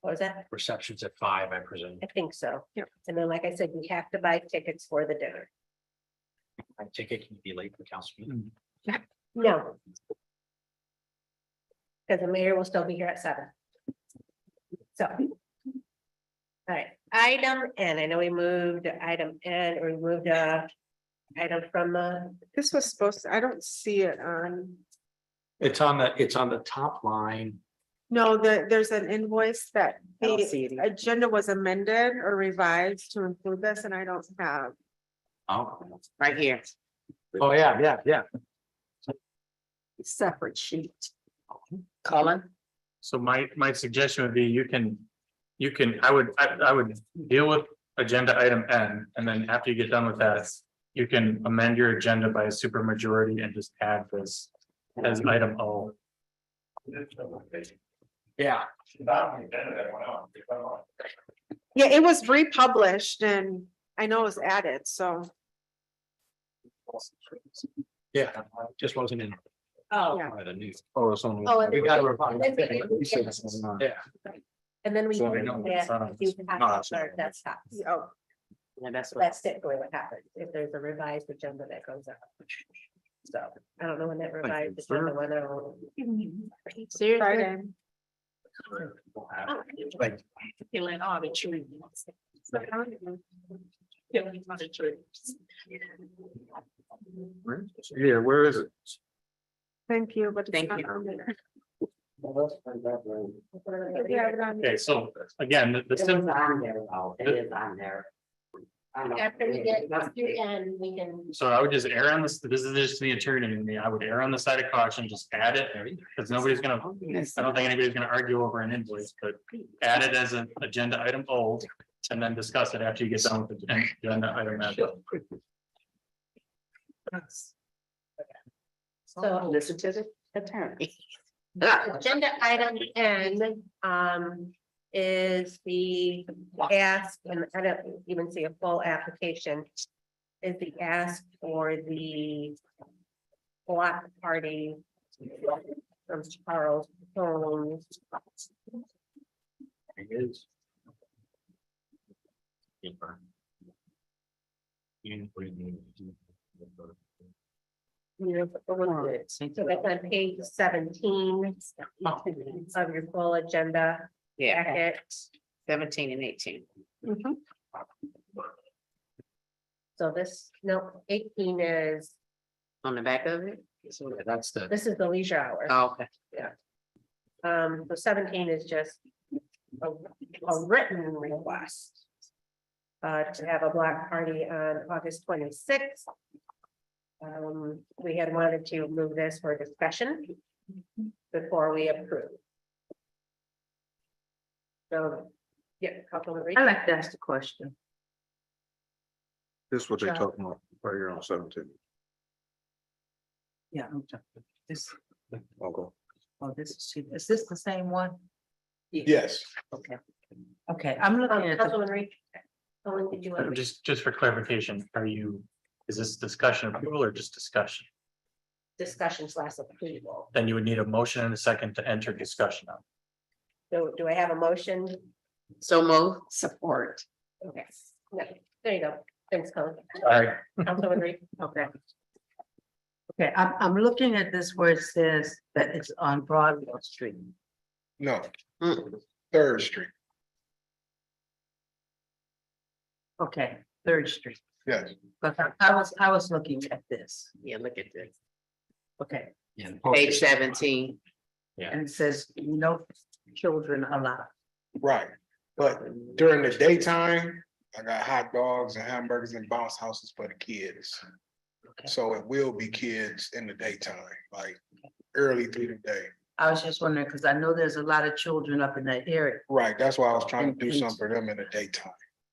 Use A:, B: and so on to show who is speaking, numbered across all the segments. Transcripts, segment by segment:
A: What was that?
B: receptions at five, I presume.
A: I think so.
C: Yep.
A: And then, like I said, we have to buy tickets for the dinner.
B: I think it can be late for council meeting.
A: No. Because the mayor will still be here at seven. So. All right, item N, I know we moved to item N, or we moved uh item from the,
C: This was supposed, to- I don't see it on,
B: It's on the, it's on the top line.
C: no, the, there's an invoice that
D: I don't
C: the
D: see it either.
C: agenda was amended or revised to include this and I don't have.
B: Oh,
D: right here,
B: oh, yeah, yeah, yeah.
C: Separate sheet.
D: Colin.
E: So my, my suggestion would be you can, you can, I would, I, I would deal with agenda item N, and then after you get done with that. You can amend your agenda by a supermajority and just add this as item O.
B: Yeah.
C: Yeah, it was republished and I know it was added, so
B: Yeah, just wasn't in
A: oh,
C: Yeah.
B: by the news.
E: Oh, it's on.
A: Oh, and-
B: We gotta revise.
A: That's okay. You said that's
B: Yeah,
A: and then we.
E: So I know it's
A: Yeah,
E: on.
A: you have
E: No,
A: to
E: it's not.
A: start that stops.
C: oh,
D: Yeah, that's what.
A: That's typically what happens, if there's a revised agenda that goes out. So I don't know when that revised
E: you, sir.
A: agenda went out.
C: Friday.
B: like,
F: Killing all the trees. Killing all the trees.
E: Yeah, where is it?
C: Thank you, but. it's
D: Thank
C: not
D: you.
C: on there.
E: Okay, so again, the- the
D: It was
E: sim-
D: on there, though. It is on there. I don't know.
F: After we get
D: That's-
F: to end, we can.
E: so I would just err on this, this is just the attorney in me, I would err on the side of caution, just add it, because nobody's gonna. I don't think anybody's gonna argue over an invoice, but add it as an agenda item old and then discuss it after you get done with the agenda item. N.
A: So-
D: Listen to the attorney.
A: Agenda item N um is the ask, and I don't even see a full application. Is the ask for the block party from Charles Holmes.
B: it is. Paper.
A: So that's on page seventeen of your full agenda
D: Yeah,
A: packet.
D: seventeen and eighteen.
C: Mhm.
A: So this, no, eighteen is,
D: On the back of it?
B: Yeah, That's the.
A: this is the leisure hour.
D: Oh, Okay.
A: Um, so seventeen is just a, a written request. Uh, to have a block party on August twenty-sixth. Um, we had wanted to move this for discussion before we approve. So, yeah, couple of.
G: I'd like to ask a question.
H: This is what they're
A: Yeah.
H: talking about, right here on seventeen.
G: Yeah, I'm jumping. This,
H: Okay.
G: oh, this is, she- is this the same one?
H: Yes.
G: Okay. Okay, I'm looking at, the-
A: Councilman Um, Reed. Colin, did you want to?
E: Just, just for clarification, are you, is this discussion approval or just discussion?
A: Discussions last approval.
E: Then you would need a motion and a second to enter discussion on.
A: So do I have a motion?
D: So move. Support.
A: Okay. No, There you go. Thanks, Colin.
E: All right,
A: Councilman Reed.
G: okay. Okay, I'm, I'm looking at this where it says that it's on Broadwell Street.
H: No,
D: Mm.
H: Third Street,
G: Okay, Third Street.
H: yes.
G: But I- I was, I was looking at this.
D: Yeah, look at this.
G: Okay,
B: Yeah. the
D: Page
B: post-
D: seventeen.
G: and it says no children allowed.
H: Right, but during the daytime, I got hot dogs and hamburgers and bounce houses for the kids. So it will be kids in the daytime, like early through the day.
G: I was just wondering, because I know there's a lot of children up in that area
H: Right, that's why I was trying to do something for them in the daytime.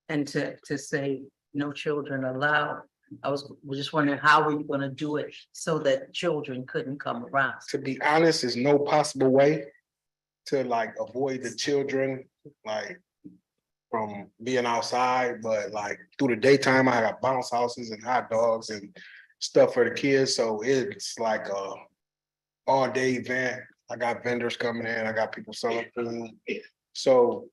G: and to, to say no children allowed. I was, was just wondering how were you gonna do it so that children couldn't come around?
H: To be honest, there's no possible way to like avoid the children, like from being outside, but like through the daytime, I got bounce houses and hot dogs and stuff for the kids, so it's like a all day event. I got vendors coming in, I got people selling food. So